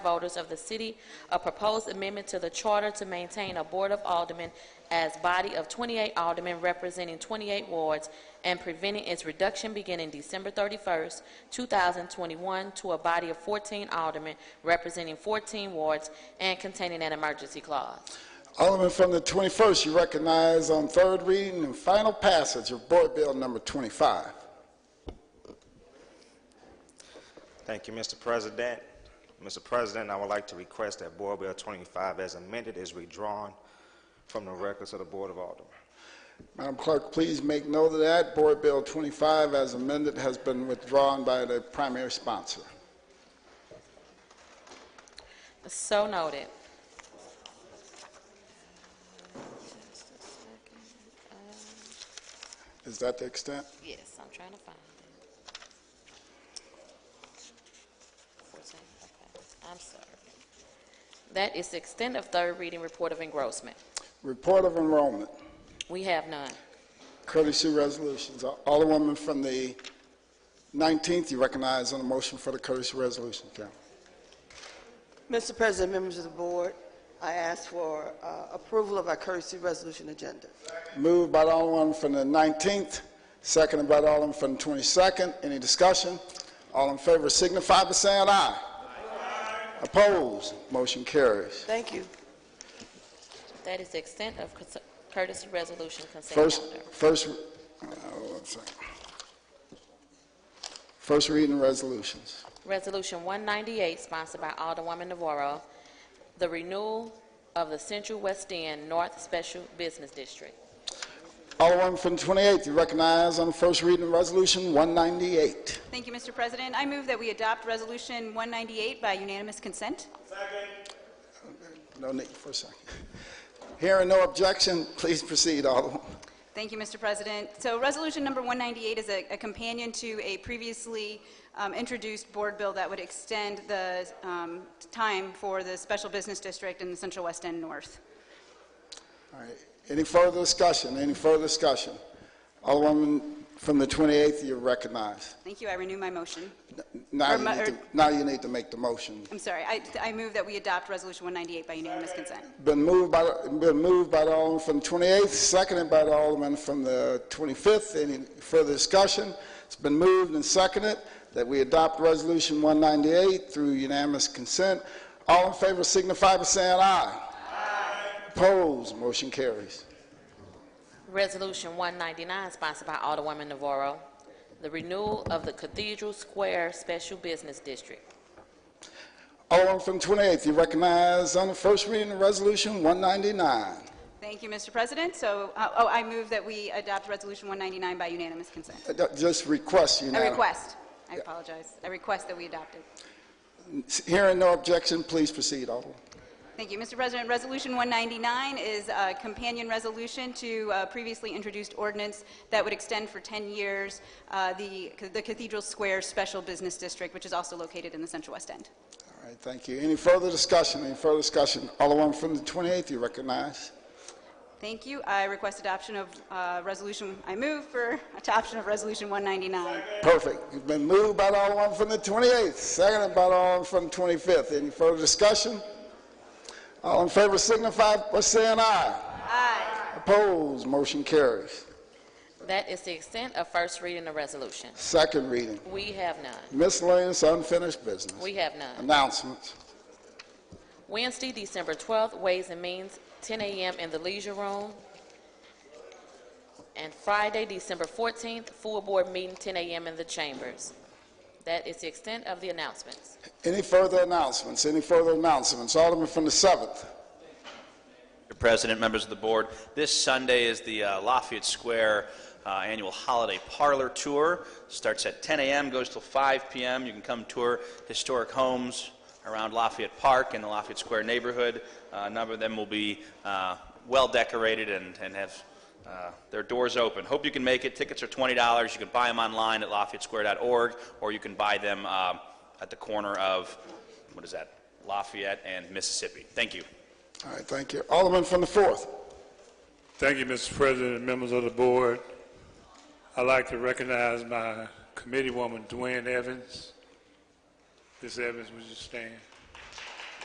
voters of the city a proposed amendment to the charter to maintain a Board of Aldermen as body of 28 aldermen representing 28 wards and preventing its reduction beginning December 31st, 2021, to a body of 14 aldermen representing 14 wards and containing an emergency clause. Alderman from the 21st, you recognize on third reading and final passage of Board Bill Number 25. Thank you, Mr. President. Mr. President, I would like to request that Board Bill 25 as amended is withdrawn from the records of the Board of Aldermen. Madam Clerk, please make note of that. Board Bill 25, as amended, has been withdrawn by the primary sponsor. So noted. Is that the extent? Yes, I'm trying to find it. Fourteen, okay, I'm sorry. That is the extent of third reading report of engrossment. Report of enrollment, We have none. courtesy resolutions. Alderwoman from the 19th, you recognize on the motion for the courtesy resolution, Council. Mr. President, members of the board, I ask for uh, approval of our courtesy resolution agenda. Moved by the Alderman from the 19th, seconded by the Alderman from the 22nd. Any discussion? All in favor signify by saying aye. Opposed? Motion carries. Thank you. That is the extent of cons- courtesy resolution consent First, calendar. first, uh, one second. First reading resolutions. Resolution 198, sponsored by Alderwoman Navarro, the renewal of the Central West End North Special Business District. Alderman from the 28th, you recognize on the first reading of Resolution 198. Thank you, Mr. President. I move that we adopt Resolution 198 by unanimous consent. No need for a second. Hearing no objection, please proceed, Alderman. Thank you, Mr. President. So Resolution Number 198 is a a companion to a previously um, introduced board bill that would extend the um, time for the Special Business District in the Central West End North. All right. Any further discussion? Any further discussion? Alderwoman from the 28th, you're recognized. Thank you. I renew my motion. Now Or you my- need to, or- now you need to make the motion. I'm sorry. I I move that we adopt Resolution 198 by unanimous consent. Been moved by, been moved by the Alderman from the 28th, seconded by the Alderman from the 25th. Any further discussion? It's been moved and seconded that we adopt Resolution 198 through unanimous consent. All in favor signify by saying aye. Opposed, motion carries. Resolution 199, sponsored by Alderwoman Navarro, the renewal of the Cathedral Square Special Business District. Alderman Oh, from the 28th, you recognize on the first reading of Resolution 199. Thank you, Mr. President. So, uh, oh, I move that we adopt Resolution 199 by unanimous consent. Uh, Just request I unanimous. request. I apologize. I request that we adopt it. Hearing no objection, please proceed, Alderman. Thank you, Mr. President. Resolution 199 is a companion resolution to uh, previously introduced ordinance that would extend for 10 years uh, the the Cathedral Square Special Business District, which is also located in the Central West End. All right, thank you. Any further discussion? Any further discussion? Alderman from the 28th, you recognize. Thank you. I request adoption of uh, resolution, I move for adoption of Resolution 199. Perfect. You've been moved by the Alderman from the 28th, seconded by the Alderman from the 25th. Any further discussion? All in favor signify by saying aye. Aye. Opposed, motion carries. That is the extent of first reading of resolution. Second reading. We have none. Miscellaneous unfinished business. We have none. Announcements. Wednesday, December 12th, Ways and Means, 10 a.m. in the Leisure Room. And Friday, December 14th, full board meeting, 10 a.m. in the Chambers. That is the extent of the announcements. Any further announcements? Any further announcements? Alderman from the 7th. Mr. President, members of the board, this Sunday is the uh, Lafayette Square uh, annual holiday parlor tour. Starts at 10 a.m., goes till 5 p.m. You can come tour historic homes around Lafayette Park and the Lafayette Square neighborhood. Uh, A number of them will be uh, well decorated and and have uh, their doors open. Hope you can make it. Tickets are $20. You can buy them online at LafayetteSquare.org, or you can buy them um, at the corner of, what is that, Lafayette and Mississippi. Thank you. All right, thank you. Alderman from the 4th. Thank you, Mr. President and members of the board. I'd like to recognize my committee woman, Dwayne Evans. Ms. Evans, would you stand?